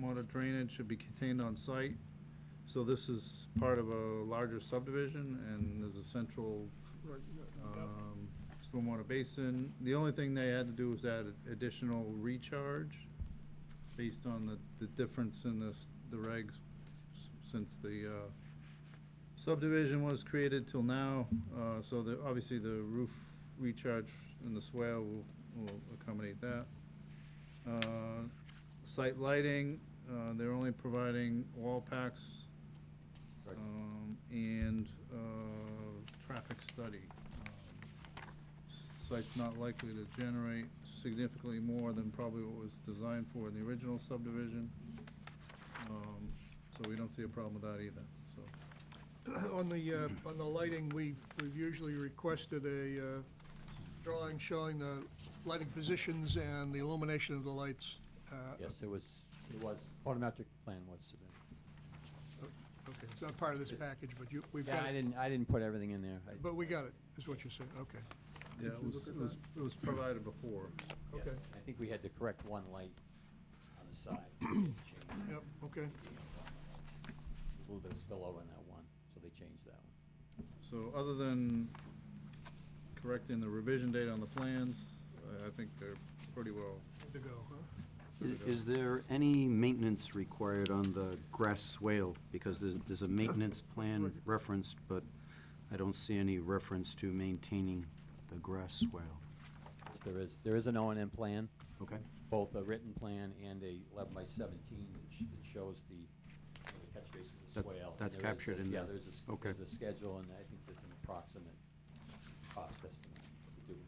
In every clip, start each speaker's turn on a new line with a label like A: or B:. A: water Uh, drainage should be contained on site. So this is part of a larger subdivision, and there's a central um, stormwater basin. The only thing they had to do was add additional recharge based on the, the difference in this, the regs s- since the uh, subdivision was created till now. Uh, So the, obviously, the roof recharge and the swale will, will accommodate that. Uh, Site lighting, uh, they're only providing wall packs
B: Right.
A: um, and uh, traffic study. Um, Site's not likely to generate significantly more than probably what was designed for in the original subdivision. Um, So we don't see a problem with that either, so.
C: On the, uh, on the lighting, we've, we've usually requested a uh, drawing showing the lighting positions and the illumination of the lights. Uh,
B: Yes, it was, it was, photometric plan was submitted.
C: Okay, it's not part of this package, but you, we've
B: Yeah,
C: got
B: I
C: it,
B: didn't, I didn't put everything in there. I-
C: but we got it, is what you're saying, okay,
A: Yeah,
C: Did
A: it
C: you
A: was,
C: look at
A: it was, it was provided before.
B: yeah,
C: okay,
B: I think we had to correct one light on the side. We had to change it.
C: yep, okay.
B: uh, A little bit of spillover in that one, so they changed that one.
A: So other than correcting the revision date on the plans, I- I think they're pretty well.
C: Good to go, huh?
A: good to go.
D: Is there any maintenance required on the grass swale? Because there's, there's a maintenance plan referenced, but I don't see any reference to maintaining the grass swale.
B: Yes, There is, there is an O and M plan,
D: Okay?
B: both a written plan and a eleven by seventeen that sh- that shows the, you know, the catch basin, the
D: That's-
B: swale. and
D: that's
B: there is
D: captured
B: the-
D: in
B: Yeah,
D: the-
B: there's a, s-
D: okay.
B: there's a schedule, and I think there's an approximate cost estimate to do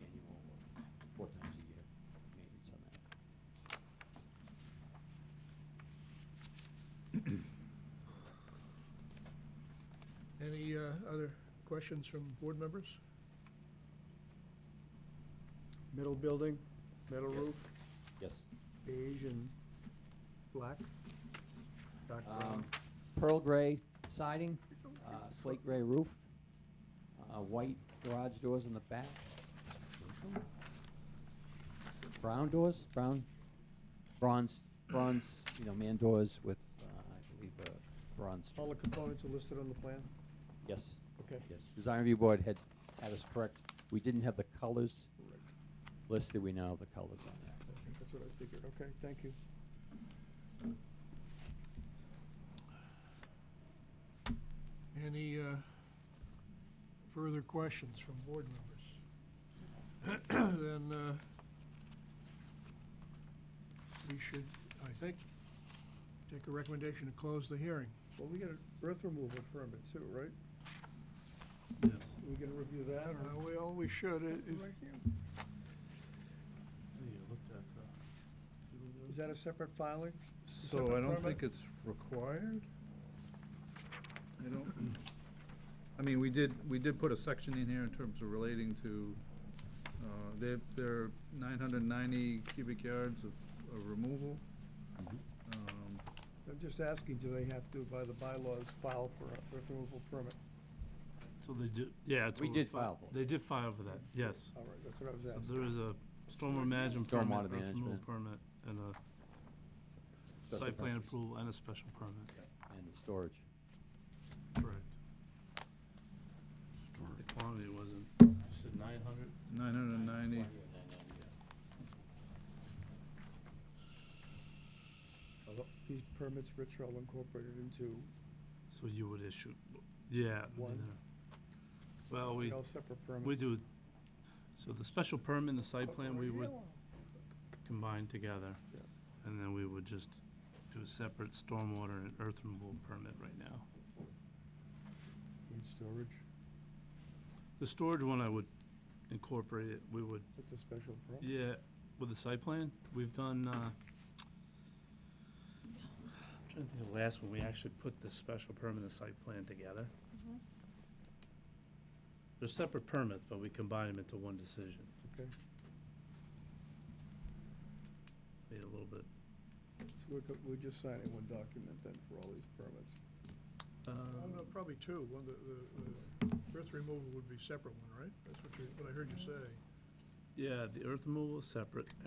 B: annual, or four times a year maintenance on that.
C: Any uh, other questions from board members?
E: Metal building, metal
B: Yes.
E: roof,
B: Yes.
E: beige and black, dark brown.
B: Um, Pearl gray siding, uh, slate gray roof, uh, white garage doors in the back. Brown doors, brown, bronze, bronze, you know, man doors with, uh, I believe, uh, bronze. trim.
E: All the components are listed on the plan?
B: Yes,
E: Okay.
B: yes. Design review board had, had us correct. We didn't have the colors listed. We now have the colors on there.
E: That's what I figured, okay, thank you.
C: Any uh, further questions from board members? Then uh, we should, I think, take a recommendation to close the hearing.
E: Well, we got an earth removal permit too, right? We gonna review that
C: Uh,
E: or?
C: Well, we should. It- it-
E: Is that a separate filing?
A: So I don't think it's required? I don't, I mean, we did, we did put a section in here in terms of relating to, uh, they're, they're nine hundred and ninety cubic yards of, of removal.
F: Mm-hmm.
A: Um,
E: I'm just asking, do they have to, by the bylaws, file for an earth removal permit?
F: So they did, yeah. it's
B: We
F: what
B: did
F: fi-
B: file for it.
F: They did file for that, yes.
E: All right, that's what I was
F: So
E: asking.
F: There is a stormwater management permit,
B: Stormwater
F: earth removal
B: management.
F: permit, and a
B: Special
F: site plan
B: permits
F: approval and a special permit,
B: And the storage.
F: correct. The quantity wasn't. You said nine hundred?
A: Nine hundred and ninety,
E: Uh, These permits, Rich, are all incorporated into,
F: So you would issue, yeah. I mean,
E: One.
F: they're- Well, we,
E: they're all separate permits.
F: we do, so the special permit and the site plan, we would combine together.
E: Yeah.
F: And then we would just do a separate stormwater and earth removal permit right now.
E: Need storage,
F: The storage one, I would incorporate it, we would,
E: that's a special permit.
F: yeah, with the site plan, we've done, uh, I'm trying to think of the last one, we actually put the special permit and the site plan together. They're separate permits, but we combine them into one decision,
E: Okay,
F: made it a little bit,
E: so we're, co- we're just signing one document then for all these permits.
C: Oh, no,
F: um,
C: Probably two. One, the- the the earth removal would be separate one, right? That's what you, what I heard you say.
F: yeah, the earth removal is separate,